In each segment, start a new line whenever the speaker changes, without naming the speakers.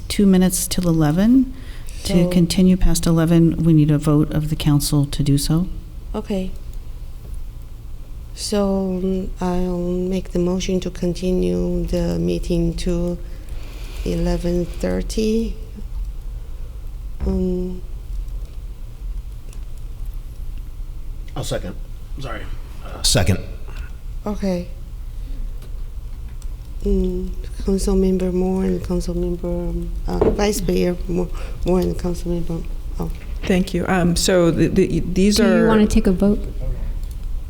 two minutes till 11. To
So-
continue past 11, we need a vote of the council to do so.
Okay. So mm, I'll make the motion to continue the meeting to 11:30. Um,
I'll second. Sorry. Uh, Second.
Okay. Mm, Councilmember Moore and Councilmember, um, uh, Vice Mayor Moore Moore and Councilmember, oh,
Thank you. Um, So the- the- these
Do you
are,
want to take a vote,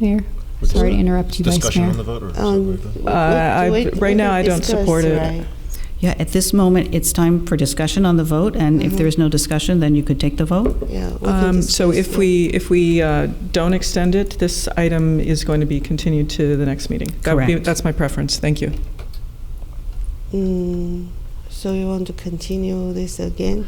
Mayor? Sorry to interrupt you, Vice
Discussion on
Mayor.
the vote or
um,
something like that?
what- what-
Uh, I-
what-
right now
what
I don't
discussed,
support it.
right?
Yeah, at this moment, it's time for discussion on the vote, and if
Mhm.
there is no discussion, then you could take the vote.
Yeah. we can
um, so
discuss
if
it.
we, if we uh, don't extend it, this item is going to be continued to the next meeting. That would be-
Correct.
That's my preference. Thank you.
Mm, So you want to continue this again?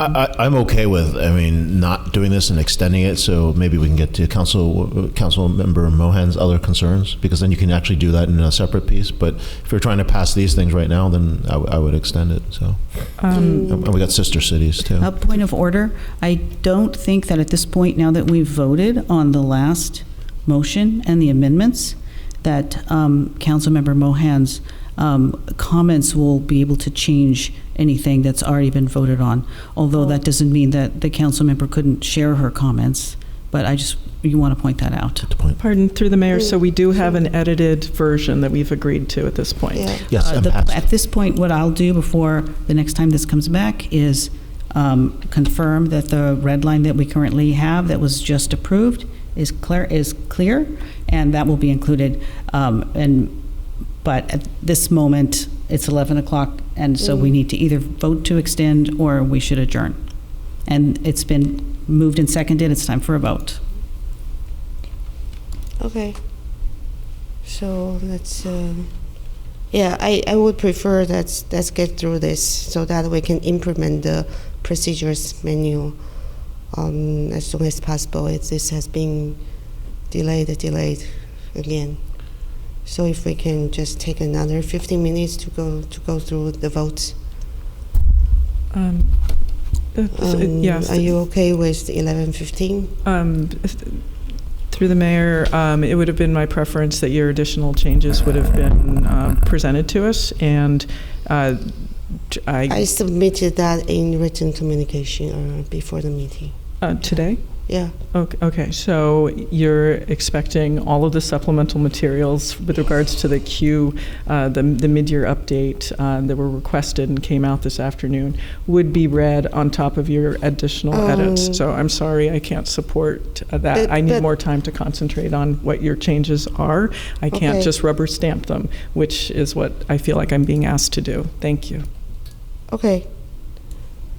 I, I, I'm okay with, I mean, not doing this and extending it, so maybe we can get to council, council member Mohan's other concerns, because then you can actually do that in a separate piece, but if you're trying to pass these things right now, then I, w- I would extend it, so.
Mm.
Um,
And we got sister cities, too.
A
Oh.
point of order, I don't think that at this point, now that we've voted on the last motion and the amendments, that um, Councilmember Mohan's um, comments will be able to change anything that's already been voted on. Although that doesn't mean that the council member couldn't share her comments, but I just, you want to point that out.
Good point.
Pardon, through the mayor, so we do have an edited version that we've agreed to at this point.
Mm. Yeah.
Yes,
Uh,
and
the-
passed.
At this point, what I'll do before the next time this comes back is um, confirm that the red line that we currently have that was just approved is clear, is clear, and that will be included. Um, And, but at this moment, it's 11 o'clock, and so we need to either vote to extend or we should adjourn. And it's been moved and seconded, it's time for a vote.
Okay. So let's. Um, yeah, I, I would prefer that let's get through this so that we can implement the procedures menu um, as soon as possible. It, this has been delayed, delayed again. So if we can just take another 15 minutes to go to go through the votes.
Um, that's- it-
Um,
Yes.
Are you okay with 11:15?
Um, Through the mayor, um, it would have been my preference that your additional changes would have been um, presented to us, and uh, t- I,
I submitted that in written communication uh, before the meeting.
uh, today?
Yeah.
Ok- Okay, so you're expecting all of the supplemental materials with regards to the Q, uh, the the mid-year update uh, that were requested and came out this afternoon, would be read on top of your additional
Um,
edits. So I'm sorry, I can't support uh, Oh. that.
But-
I
but-
need more time to concentrate on what your changes are. I can't
Okay.
just rubber stamp them, which is what I feel like I'm being asked to do. Thank you.
Okay.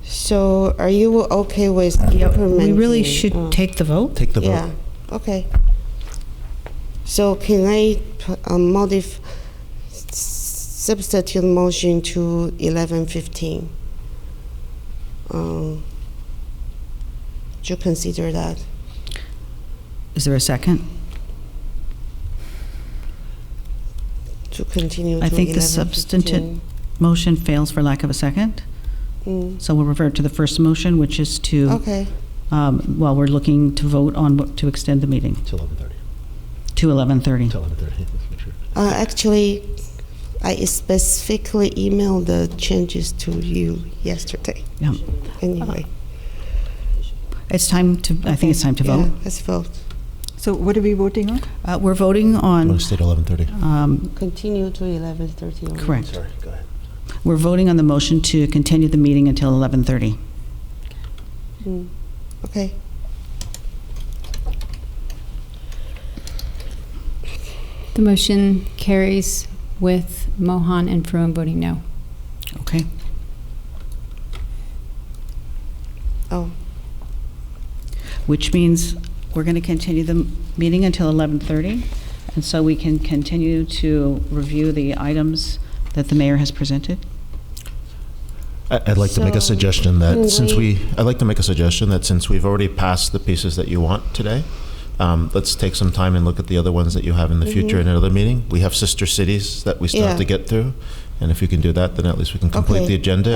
So are you okay with
We
implementing?
really should
uh,
take the vote?
Take the vote.
Yeah, okay. So can I p- uh, modif, s- substitute motion to eleven fifteen? Do you consider that?
Is there a second?
To continue to
I
eleven
think
fifteen?
the substantive- Motion fails for lack of a second. So we'll revert to the first motion, which is to,
Mm. Okay,
um, well, we're looking to vote on, what- to extend the meeting
Till 11:30,
to 11:30.
till 11:30, let's make sure.
Uh, actually, I specifically emailed the changes to you yesterday.
Yeah.
Anyway.
It's time to, I think it's time to vote.
Yeah, let's vote.
So what are we voting on?
Uh, We're voting
We'll
on,
stay till 11:30.
um,
Continue to 11:30.
correct,
Sorry, go ahead.
we're voting on the motion to continue the meeting until 11:30.
Okay.
The motion carries with Mohan and Fruin voting no.
Okay.
Oh,
Which means we're going to continue the meeting until 11:30. And so we can continue to review the items that the mayor has presented.
I- I'd like to make a
So, can
suggestion that since
we-
we, I'd like to make a suggestion that since we've already passed the pieces that you want today, um, let's take some time and look at the other ones that you have in the future in another meeting. We have sister cities that we still have
Mm-hmm. Yeah.
to get through. And if you can do that, then at least we can complete
Okay.
the agenda